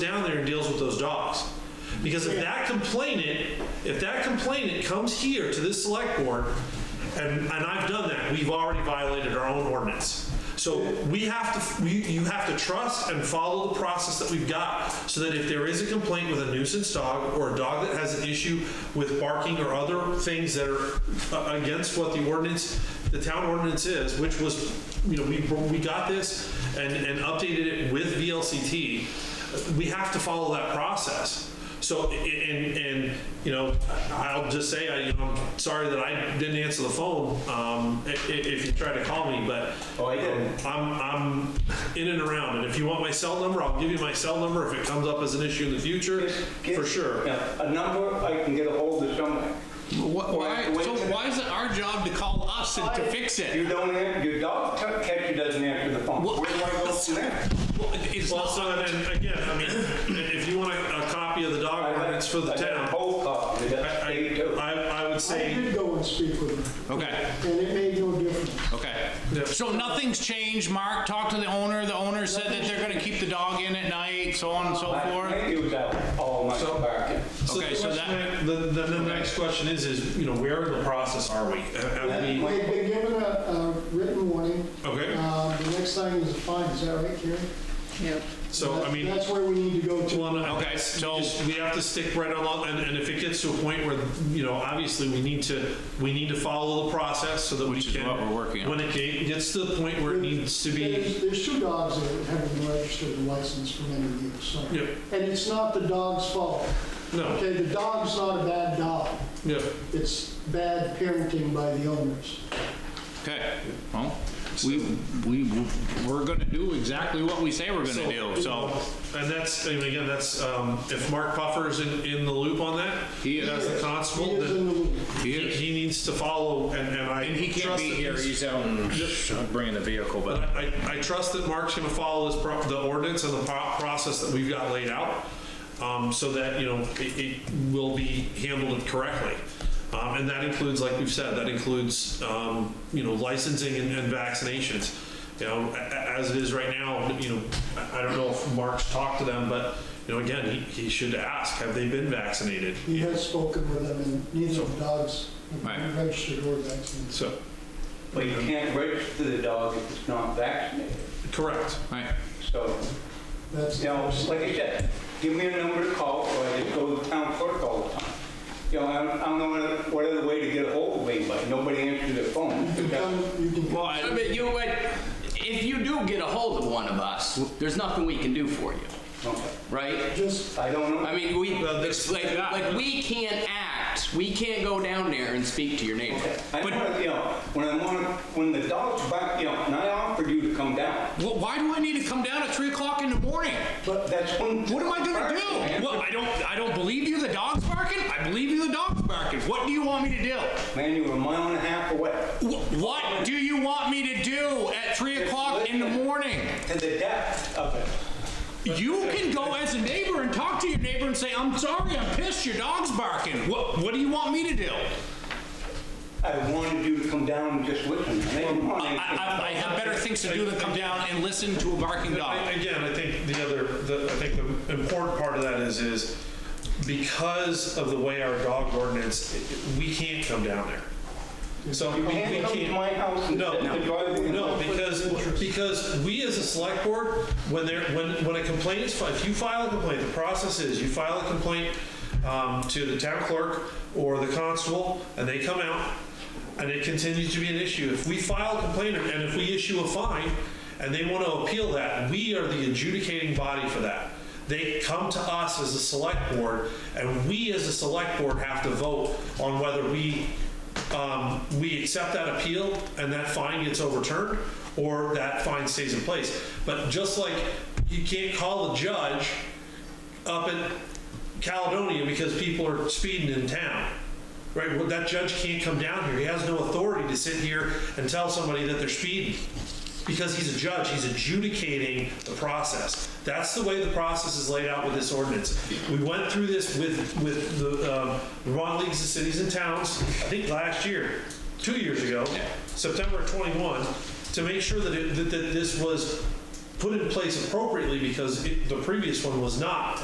Because if that complainant, if that complainant comes here to this select board, and, and I've done that, we've already violated our own ordinance. So we have to, we, you have to trust and follow the process that we've got, so that if there is a complaint with a nuisance dog, or a dog that has an issue with barking or other things that are uh, against what the ordinance, the town ordinance is, which was, you know, we, we got this and, and updated it with VLCT, we have to follow that process. So, a- and, and, you know, I'll just say, I, you know, I'm sorry that I didn't answer the phone, um, i- i- if you try to call me, but. Oh, I didn't. I'm, I'm in and around, and if you want my cell number, I'll give you my cell number if it comes up as an issue in the future, Get- for sure. yeah, A number I can get a hold of somebody. Wh- Why, Wait, so wait. why is it our job to call us and to fix You it? don't, an- your dog t- catcher doesn't answer the phone. Well- Where do I go from there? Well, It's Well, not, so then, again, I mean, if you want a, a copy of the I dog got- ordinance for the I got a town, whole copy of that state I, too. I, I would I say, did go and speak with them, okay, and it made no difference. okay. Yeah. So nothing's changed, Mark talked to the owner, the owner said that they're gonna keep the dog in at night, so on and so I forth. think it was out all my So- barking. so the Okay, so question, that, I- the, the, the Okay. next question is, is, you know, where in the process are we? Have- have we- They've been given a, a written warning. Okay. Uh, The next thing is a fine, is that right, Karen? Yep. So, I mean. That's where we need to go to. Well, no, Okay, so- we just- We have to stick right along, and, and if it gets to a point where, you know, obviously, we need to, we need to follow the process so that we Which is can. what we're working on. When it ga- gets to the point where it needs to be, There's, there's two dogs that haven't been registered and licensed for many years, so. Yep. And it's not the dog's fault. no, Okay, the dog's not a bad dog. yeah. It's bad parenting by the owners. okay, well, we, we, we're gonna do exactly what we say we're gonna do, so. um, And that's, and again, that's, um, if Mark Puffer's in, in the loop on that, He is. as the He constable, is in then the loop. He he is. he needs to follow, and, and I. And he can't trust be that here, he's- he's out and bringing the vehicle, But but I, I trust that Mark's gonna follow this, pro- the ordinance and the pro- process that we've got laid out, um, so that, you know, it, it will be handled correctly. Um, and that includes, like we've said, that includes, um, you know, licensing and, and vaccinations. You know, a- a- as it is right now, you know, I, I don't know if Mark's talked to them, but, you know, again, he, he should ask, have they been vaccinated? He has spoken with them, and neither of the dogs have Right. been registered or vaccinated. So, But you can't register the dog if it's not vaccinated. correct. Right, So, That's. you know, like I said, give me a number to call or I just go to the town clerk all the time. You know, I don't- I don't know what- what other way to get a hold of anybody. Nobody answers their phone. You can come, you can. well, I- But you, but if you do get a hold of one of us, there's nothing we can do for you, Okay. right? Just, I don't know. I mean, we, Well, it's like, like, we can't act, we can't go down there and speak to your neighbor. I want to, you know, when I want, when the dog's back, you know, and I offered you to come down, well, why do I need to come down at three o'clock in the morning? but that's when. What am I gonna do? Man, Well, I don't, I don't believe you, the dog's barking, I believe you, the dog's barking, what do you want me to do? Man, you were a mile and a half away Wh- What do you want me to do at three o'clock in the morning? to the depth of it. You can go as a neighbor and talk to your neighbor and say, I'm sorry, I'm pissed, your dog's barking. What, what do you want me to do? I wanted you to come down and just listen. And they didn't want I, I, I have better things to do than come down and listen to a barking I- dog. Again, I think the other, the, I think the important part of that is, is because of the way our dog ordinance, it- it- we can't come down there. So we You we can't come to my can't. house and No, sit in the driveway. and no, look. because, because we as a select board, when there, when, when a complaint is filed, if you file a complaint, the process is you file a complaint um, to the town clerk or the constable, and they come out, and it continues to be an issue. If we file a complaint and if we issue a fine, and they want to appeal that, we are the adjudicating body for that. They come to us as a select board, and we as a select board have to vote on whether we, um, we accept that appeal and that fine gets overturned, or that fine stays in place. But just like you can't call the judge up at Caledonia because people are speeding in town. Right, well, that judge can't come down here. He has no authority to sit here and tell somebody that they're speeding. Because he's a judge, he's adjudicating the process. That's the way the process is laid out with this ordinance. We went through this with, with the um, Vermont Leagues of Cities and Towns, I think last year, two years ago, September 21, to make sure that, it- that that this was put in place appropriately because it- the previous one was not.